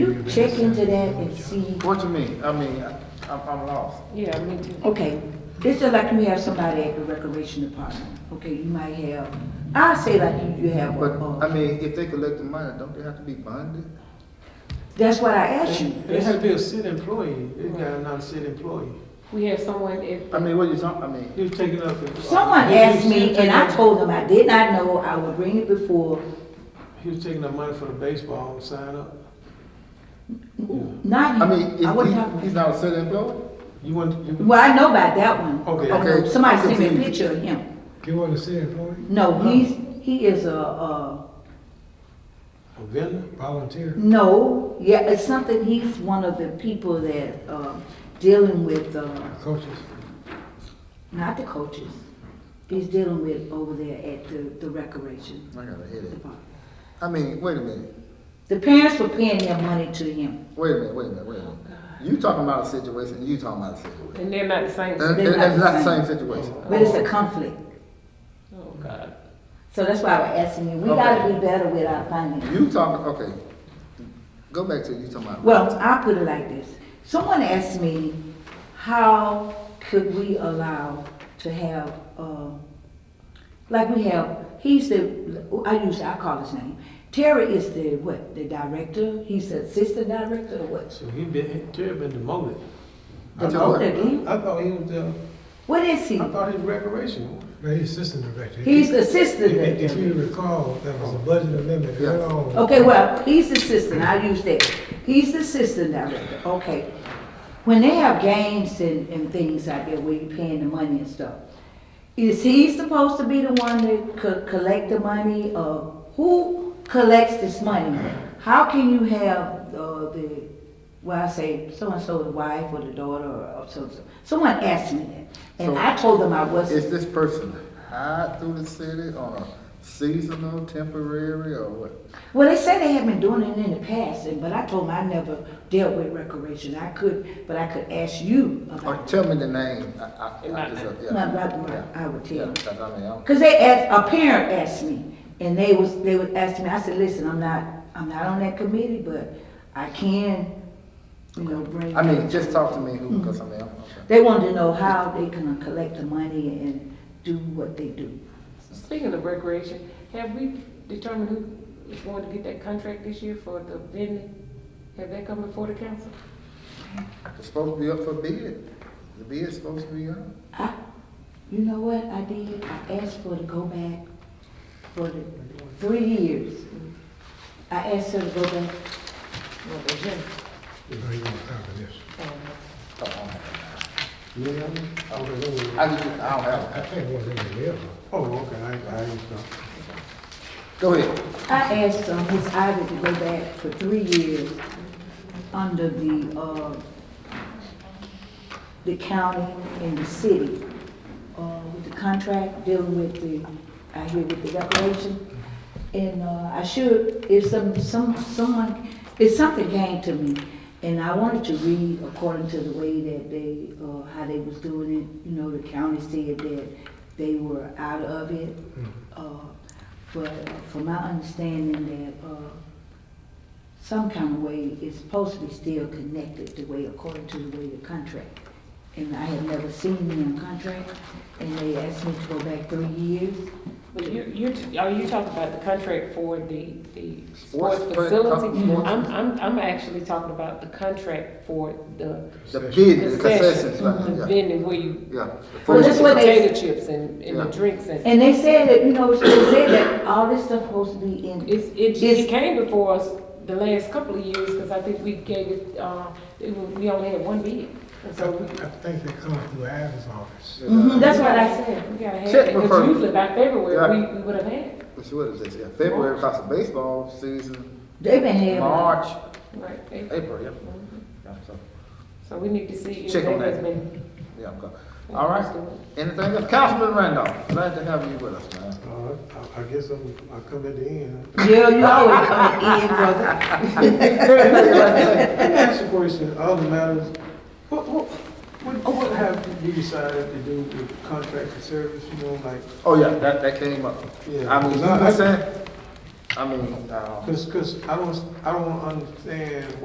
Check into that and see, What you mean? I mean, I- I'm, I'm lost. Yeah, me too. okay, it's just like we have somebody at the recreation department, okay, you might have, I say like you- you have, But, I uh, mean, if they collect the money, don't they have to be bonded? that's what I asked you. And it has to be a city employee, it got not a city employee. We had someone at. I mean, what you talking, I mean, You taking up. the- Someone he- he asked was me taking and I up- told them I did not know, I would bring it before, He was taking up money for the baseball sign up. not you, I mean, I wasn't talking is he, about he's not a city employee? You want, you, Well, I know about that one. Okay. Okay, Somebody sent me a continue. picture of him. You want to see it for me? No, he's, he is a, uh, a vendor? Volunteer. no, yeah, it's something, he's one of the people that, uh, dealing with, uh, Coaches. not the coaches. He's dealing with over there at the, the recreation I got a headache. department. I mean, wait a minute, The parents were paying their money to him. wait a minute, wait a minute, wait a minute. You talking about a situation, you talking about a situation. And they're not the same. And, and- and it's not the same situation. But it's a conflict. Oh, God. So that's why we're asking you, we gotta be better with our finances. You talking, okay, go back to you talking about. Well, I put it like this. Someone asked me, how could we allow to have, um, like we have, he's the, I use, I call his name. Terry is the, what, the director? He's the assistant director or what? So he been, Terry been demoted. I Demoted thought- again? I thought he was, uh, What is he? I thought he was recreation. But he's assistant director. He's the assistant If- if- If director. you recall, there was a budget amendment Yeah. going on. Oh. Okay, well, he's the assistant, I use that. He's the assistant director, okay. When they have games and, and things out there where you're paying the money and stuff, is he supposed to be the one that could collect the money, or who collects this money? How can you have, uh, the, well, I say, so-and-so's wife or the daughter or so-and-so? Someone asked me that, and I told them I wasn't. Is this person hired through the city on a seasonal, temporary, or what? Well, they said they had been doing it in the past, and- but I told them I never dealt with recreation. I could, but I could ask you Or about it. tell me the name, I, I, I just, uh, My yeah. brother, I would tell Yeah, you. 'cause I mean, I'm- Cause they asked, a parent asked me, and they was, they would ask me, I said, listen, I'm not, I'm not on that committee, but I can, you know, bring. I mean, just talk to me who, because I mean, I'm, okay. They wanted to know how they can collect the money and do what they do. Speaking of recreation, have we determined who is going to get that contract this year for the vending? Have that come before the council? It's supposed to be up for bid. The bid's supposed to be up. I, you know what I did? I asked for to go back for the three years. I asked her to go back. Well, the vending. You know, you want to talk to this. Oh, I don't have You know what I mean? Okay, it. wait, I wait. just, I don't have I think it was in the mail. Oh, okay, I, I understand. it. Go ahead. I asked um, Ms. Ivy to go back for three years under the, uh, the county and the city, uh, with the contract dealing with the, I hear with the recreation. And, uh, I should, if some, some, someone, if something came to me, and I wanted to read according to the way that they, uh, how they was doing it, you know, the county said that they were out of it. Uh, but from my understanding that, uh, some kind of way is supposed to be still connected the way, according to the way the contract. And I had never seen them contract, and they asked me to go back three years. But you, you're, t- are you talking about the contract for the, the Sports sports pla- facility? sports- I'm, I'm, I'm actually talking about the contract for the The bid, the Mm-hmm. concessions, concessions, line, the yeah, vending where you, yeah. The for Well, the that's what food. they- potato chips and, and the Yeah. drinks and. And they said that, you know, they said that all this stuff supposed to be in, It's, it, It's- it came before us the last couple of years, because I think we gave it, uh, it wa- we only had one bid. And I so we, I think they come through Ivan's office. Mm-hmm. Mhm, that's what I said. said, we gotta have Check it, because before- usually by February, Yeah. we, we would have had it. Which, what is this, yeah, February, because of baseball season, They been having, March, Right. April. April, yeah. Yeah, so, So we need to see if Check that on has that. been. yeah, I'm good. All right, anything else? Councilman Randolph, glad to have you with us, man. Uh, I, I guess I'm, I come at the end. yeah, you always come in, brother. Let me ask you a question, other matters, what, what, what, what have you decided to do with contract for service, you know, like, Oh, yeah, that, that came up. Yeah. I mean, you were saying, I mean, um. cause, cause I don't, I don't understand